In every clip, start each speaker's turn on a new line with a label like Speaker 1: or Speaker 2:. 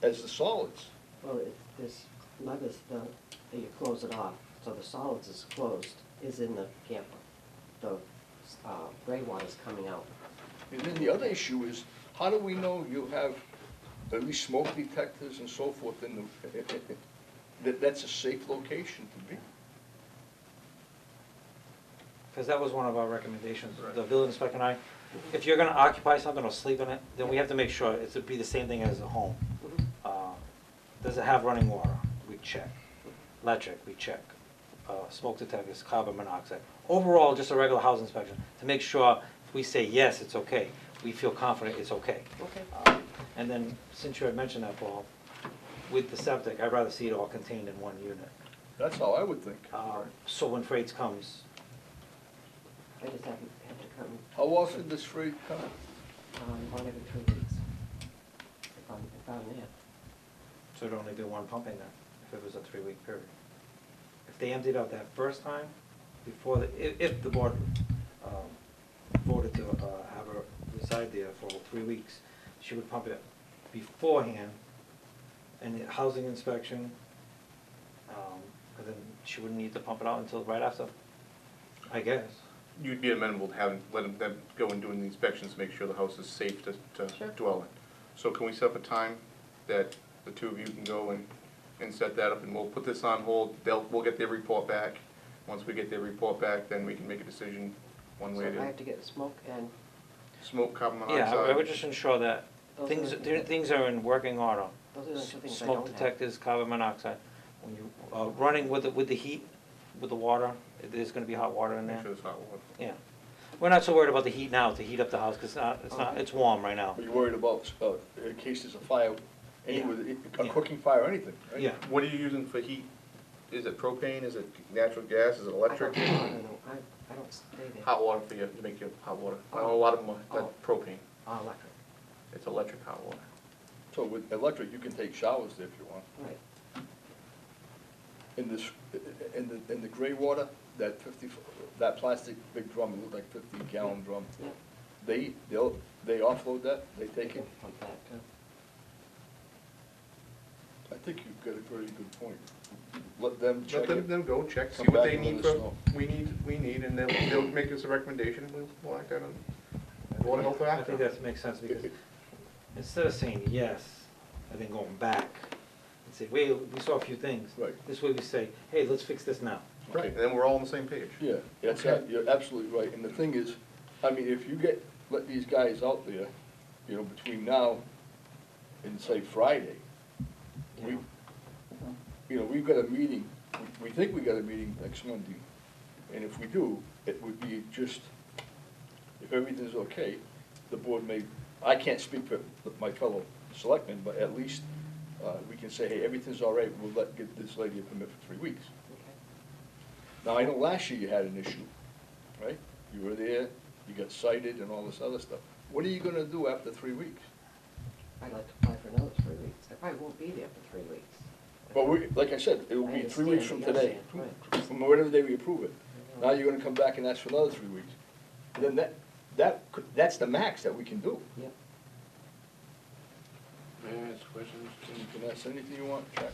Speaker 1: as the solids.
Speaker 2: Well, it- this mud is the, that you close it off, so the solids is closed, is in the camper. The uh, gray water's coming out.
Speaker 1: And then the other issue is, how do we know you have at least smoke detectors and so forth in the, that, that's a safe location to be?
Speaker 3: Because that was one of our recommendations,
Speaker 1: Right.
Speaker 3: the building inspector and I, if you're gonna occupy something or sleep in it, then we have to make sure it's to be the same thing as a home.
Speaker 4: Mm-hmm.
Speaker 3: Uh, Does it have running water? We check. Electric, we check. Uh, Smoke detectors, carbon monoxide. Overall, just a regular house inspection, to make sure if we say, yes, it's okay, we feel confident it's okay.
Speaker 2: Okay.
Speaker 3: Uh, And then, since you had mentioned that, Paul, with the septic, I'd rather see it all contained in one unit.
Speaker 1: That's how I would think.
Speaker 3: Uh, So when freights comes,
Speaker 2: I just have, have to come,
Speaker 4: Oh,
Speaker 1: How often does freight come?
Speaker 2: um, one every three weeks. If I'm, if I'm there.
Speaker 3: So it'd only be one pump in there, if it was a three-week period. If they emptied out that first time, before the, if, if the board, um, voted to, uh, have her reside there for three weeks, she would pump it beforehand, and the housing inspection, um, and then she wouldn't need to pump it out until right after, I guess.
Speaker 4: You'd be amenable to having, letting them go and doing the inspections, to make sure the house is safe to,
Speaker 2: Sure.
Speaker 4: to dwell in. So can we set up a time that the two of you can go and, and set that up, and we'll put this on hold, they'll, we'll get their report back. Once we get their report back, then we can make a decision one way
Speaker 2: So I
Speaker 4: to
Speaker 2: have to get smoke and,
Speaker 4: smoke carbon
Speaker 3: Yeah,
Speaker 4: monoxide.
Speaker 3: I I would just ensure that
Speaker 2: Those are
Speaker 3: things,
Speaker 2: the-
Speaker 3: th- things are in working order.
Speaker 2: those are the two things I don't have.
Speaker 3: Smoke detectors, carbon monoxide, when you, uh, running with the, with the heat, with the water, there's gonna be hot water in
Speaker 4: Make
Speaker 3: there,
Speaker 4: sure it's hot water.
Speaker 3: yeah. We're not so worried about the heat now, to heat up the house, 'cause it's not, it's not,
Speaker 2: Okay.
Speaker 3: it's warm right now.
Speaker 1: Are you worried about, uh, uh, cases of fire, any, a cooking fire or anything, right?
Speaker 3: Yeah,
Speaker 4: What are you using for heat? Is it propane, is it natural gas, is it
Speaker 2: I don't,
Speaker 4: electric?
Speaker 2: I don't know, I, I don't stay there.
Speaker 4: Hot water for you, to make your hot water. I know a lot of them, are- that's
Speaker 2: Oh.
Speaker 4: propane,
Speaker 2: Oh, electric,
Speaker 4: it's electric hot water.
Speaker 1: So with electric, you can take showers there if you want.
Speaker 2: right.
Speaker 1: In this, in the, in the gray water, that fifty, that plastic big drum, it looked like fifty gallon drum,
Speaker 2: Yeah.
Speaker 1: they, they'll, they offload that, they take it.
Speaker 2: Pump that, uh,
Speaker 1: I think you've got a very good point. Let them check
Speaker 4: Let them,
Speaker 1: it.
Speaker 4: them go check, see
Speaker 1: Come
Speaker 4: what
Speaker 1: back
Speaker 4: they
Speaker 1: and
Speaker 4: need
Speaker 1: let us
Speaker 4: for,
Speaker 1: know.
Speaker 4: we need, we need, and they'll, they'll make us a recommendation, we'll, we'll act on it. Board of Health will
Speaker 3: I
Speaker 4: act
Speaker 3: think
Speaker 4: on it.
Speaker 3: that makes sense, because instead of saying yes, and then going back, and say, wait, we saw a few things.
Speaker 1: Right.
Speaker 3: This way we say, hey, let's fix this now.
Speaker 4: Right, and then we're all on the same page.
Speaker 1: Yeah, that's,
Speaker 4: Okay.
Speaker 1: you're absolutely right, and the thing is, I mean, if you get, let these guys out there, you know, between now and say Friday, we,
Speaker 2: Yeah.
Speaker 1: you know, we've got a meeting, we, we think we got a meeting next Monday, and if we do, it would be just, if everything's okay, the board may, I can't speak for my fellow selectmen, but at least, uh, we can say, hey, everything's all right, we'll let, get this lady a permit for three weeks.
Speaker 2: okay.
Speaker 1: Now, I know last year you had an issue, right? You were there, you got cited and all this other stuff. What are you gonna do after three weeks?
Speaker 2: I'd like to apply for another three weeks. I probably won't be there for three weeks.
Speaker 1: But we, like I said, it will be three weeks from today, from whatever day we approve it. Now you're gonna come back and ask for another three weeks. And Then that, that, could- that's the max that we can do.
Speaker 2: Yep.
Speaker 5: May I ask questions?
Speaker 1: And You can ask anything you want, Jack.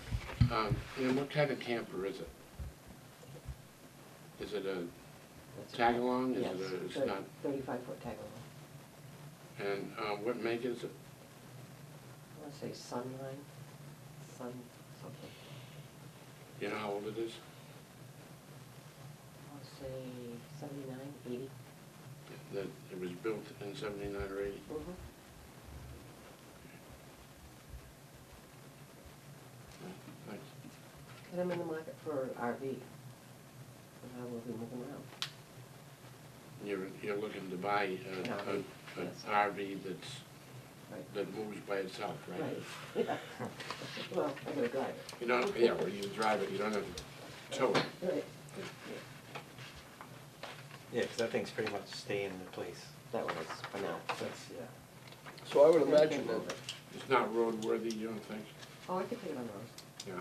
Speaker 5: Um, And what kind of camper is it? Is it a
Speaker 2: That's it.
Speaker 5: tag-along? Is
Speaker 2: Yes,
Speaker 5: it a, it's
Speaker 2: thirty-
Speaker 5: not,
Speaker 2: Thirty-five foot tag along.
Speaker 5: and uh, what make is it?
Speaker 2: I wanna say sunline, sun something.
Speaker 5: You know how old it is?
Speaker 2: I wanna say seventy-nine, eighty.
Speaker 5: That it was built in seventy-nine or eighty?
Speaker 2: Mhm.
Speaker 5: Uh, Thanks.
Speaker 2: And I'm in the market for an RV. And I will be moving around.
Speaker 5: You're, you're looking to buy a-
Speaker 2: An
Speaker 5: a,
Speaker 2: RV,
Speaker 5: an
Speaker 2: yes.
Speaker 5: RV that's,
Speaker 2: Right.
Speaker 5: that moves by itself, right?
Speaker 2: Yeah. Well, I gotta drive it.
Speaker 5: You don't, yeah, well, you drive it, you don't have to tow it.
Speaker 2: Right.
Speaker 3: Yeah, 'cause that thing's pretty much staying in place,
Speaker 2: That one is for now.
Speaker 3: that's, yeah.
Speaker 1: So I would imagine that,
Speaker 5: It's not roadworthy, you don't think?
Speaker 2: Oh, I could take it on the road.
Speaker 5: Yeah.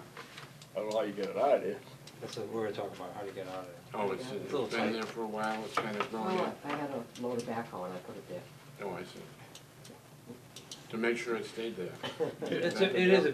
Speaker 1: I don't know how you get it out of there.
Speaker 3: That's what we were talking about, how to get out of it.
Speaker 5: Oh, it's,
Speaker 2: Yeah.
Speaker 5: it's
Speaker 3: Little tight.
Speaker 5: been there for a while, it's kind of grown
Speaker 2: Oh,
Speaker 5: up?
Speaker 2: I had a load of backhoe and I put it there.
Speaker 5: Oh, I see. To make sure it stayed there.
Speaker 3: It's, a- it is a